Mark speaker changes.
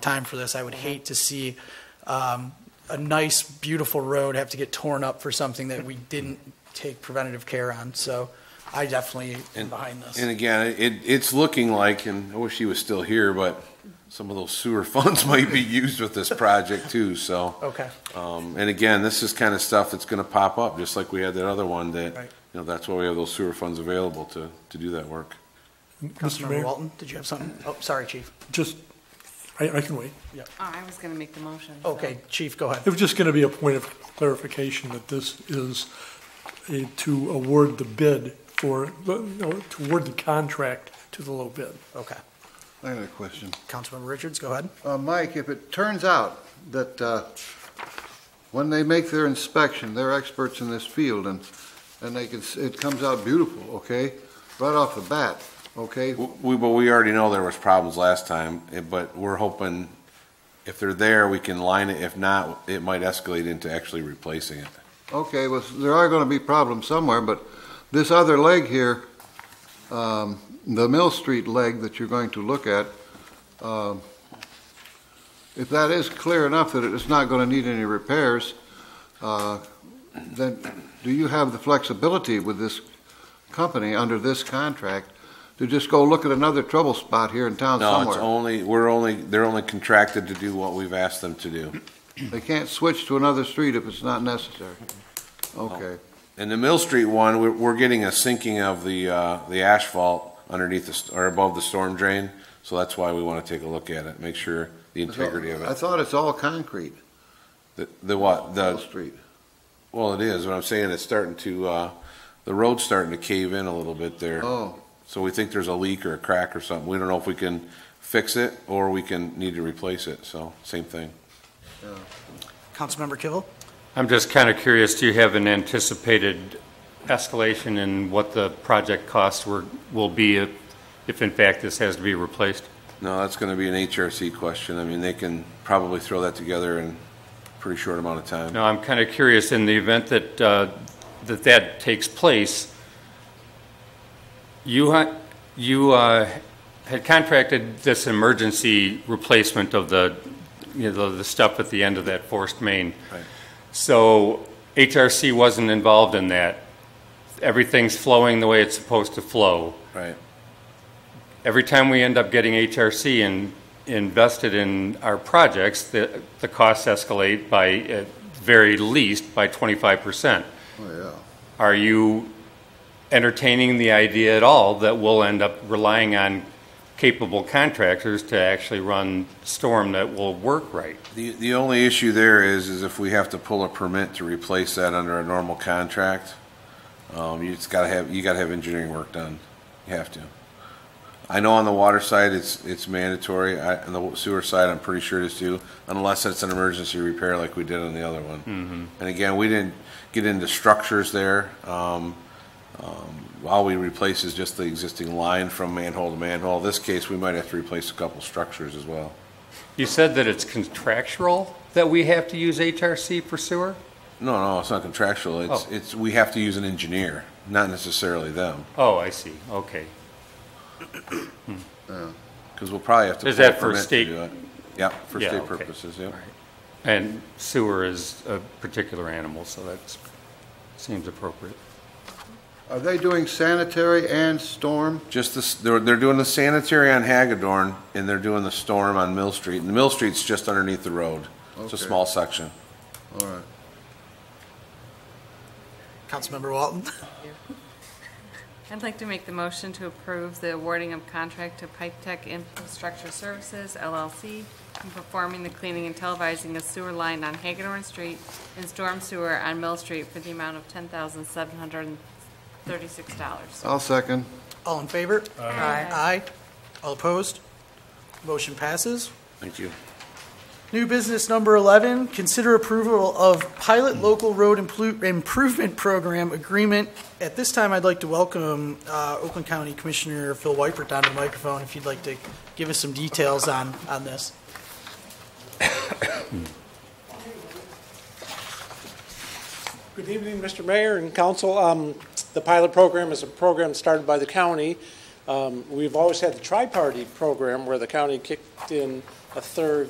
Speaker 1: time for this. I would hate to see um, a nice, beautiful road have to get torn up for something that we didn't take preventative care on. So I definitely am
Speaker 2: And-
Speaker 1: behind this.
Speaker 2: And again, it, it's looking like, and I wish he was still here, but some of those sewer funds might be used with this project too, so.
Speaker 1: Okay.
Speaker 2: Um, and again, this is kind of stuff that's gonna pop up, just like we had that other one that,
Speaker 1: Right.
Speaker 2: you know, that's why we have those sewer funds available to, to do that work.
Speaker 3: Mr.
Speaker 1: Councilmember
Speaker 3: Mayor,
Speaker 1: Walton, did you have something? Oh, sorry, Chief.
Speaker 3: just, I, I can wait.
Speaker 4: Oh, I was going to make the motion. so-
Speaker 1: Okay, Chief, go ahead.
Speaker 3: It was just going to be a point of clarification that this is a- to award the bid for, no, to award the contract to the low bid.
Speaker 1: Okay.
Speaker 5: I got a question.
Speaker 1: Councilmember Richards, go ahead.
Speaker 5: Uh, Mike, if it turns out that uh, when they make their inspection, they're experts in this field, and, and they can, s- it comes out beautiful, okay? Right off the bat, okay?
Speaker 2: W- We, but we already know there was problems last time, eh, but we're hoping if they're there, we can line it. If not, it might escalate into actually replacing it.
Speaker 5: Okay, well, there are going to be problems somewhere, but this other leg here, um, the Mill Street leg that you're going to look at, um, if that is clear enough that it's not going to need any repairs, uh, then do you have the flexibility with this company under this contract to just go look at another trouble spot here in town
Speaker 2: No, it's
Speaker 5: somewhere?
Speaker 2: only, we're only, they're only contracted to do what we've asked them to do.
Speaker 5: They can't switch to another street if it's not necessary. Okay.
Speaker 2: And the Mill Street one, we're, we're getting a sinking of the, uh, the asphalt underneath the, st- or above the storm drain. So that's why we want to take a look at it, make sure the integrity of
Speaker 5: I
Speaker 2: it.
Speaker 5: thought it's all concrete,
Speaker 2: The, the what?
Speaker 5: Mill
Speaker 2: The,
Speaker 5: Street.
Speaker 2: well, it is, what I'm saying, it's starting to, uh, the road's starting to cave in a little bit there.
Speaker 5: Oh,
Speaker 2: So we think there's a leak or a crack or something. We don't know if we can fix it or we can need to replace it. So same thing.
Speaker 1: Councilmember Kivel?
Speaker 6: I'm just kind of curious, do you have an anticipated escalation in what the project costs were, will be if, if in fact this has to be replaced?
Speaker 2: No, that's going to be an HRC question. I mean, they can probably throw that together in a pretty short amount of time.
Speaker 6: No, I'm kind of curious, in the event that, uh, that that takes place, you, ha- you uh, had contracted this emergency replacement of the, you know, the- the stuff at the end of that forced main.
Speaker 2: Right.
Speaker 6: So HRC wasn't involved in that. Everything's flowing the way it's supposed to flow.
Speaker 2: Right.
Speaker 6: Every time we end up getting HRC in- invested in our projects, the the costs escalate by, at very least, by 25%.
Speaker 5: oh, yeah.
Speaker 6: Are you entertaining the idea at all that we'll end up relying on capable contractors to actually run storm that will work right?
Speaker 2: The, the only issue there is, is if we have to pull a permit to replace that under a normal contract, um, you just gotta have, you gotta have engineering work done. You have to. I know on the water side, it's, it's mandatory. I, on the sewer side, I'm pretty sure it is too, unless it's an emergency repair like we did on the other one. And again, we didn't get into structures there. Um, um, all we replace is just the existing line from manhole to manhole. This case, we might have to replace a couple structures as well.
Speaker 6: You said that it's contractual that we have to use HRC for sewer?
Speaker 2: No, no, it's not contractual. It's,
Speaker 6: Oh.
Speaker 2: it's, we have to use an engineer, not necessarily them,
Speaker 6: Oh, I see, okay.
Speaker 2: because we'll probably have to.
Speaker 6: Is
Speaker 2: pull a
Speaker 6: that for
Speaker 2: permit to
Speaker 6: state-
Speaker 2: do it. Yep, for
Speaker 6: Yeah,
Speaker 2: state
Speaker 6: okay.
Speaker 2: purposes, yep.
Speaker 6: And sewer is a particular animal, so that seems appropriate.
Speaker 5: Are they doing sanitary and storm?
Speaker 2: Just this, they're, they're doing the sanitary on Hagadorn, and they're doing the storm on Mill Street. And the Mill Street's just underneath the road. It's a
Speaker 5: Okay.
Speaker 2: small section.
Speaker 5: All right.
Speaker 1: Councilmember Walton?
Speaker 4: I'd like to make the motion to approve the awarding of contract to Pipe Tech Infrastructure Services LLC in performing the cleaning and televising of sewer line on Hagedorn Street and storm sewer on Mill Street for the amount of $10,736.
Speaker 5: I'll second.
Speaker 1: All in favor? Aye. Aye. All opposed? Motion passes.
Speaker 2: Thank you.
Speaker 1: New business number 11, consider approval of pilot local road Implu- improvement program agreement. At this time, I'd like to welcome uh, Oakland County Commissioner Phil Wypert down to the microphone if you'd like to give us some details on, on this.
Speaker 7: Good evening, Mr. Mayor and council. Um, The pilot program is a program started by the county. Um, We've always had the tri-party program where the county kicked in a third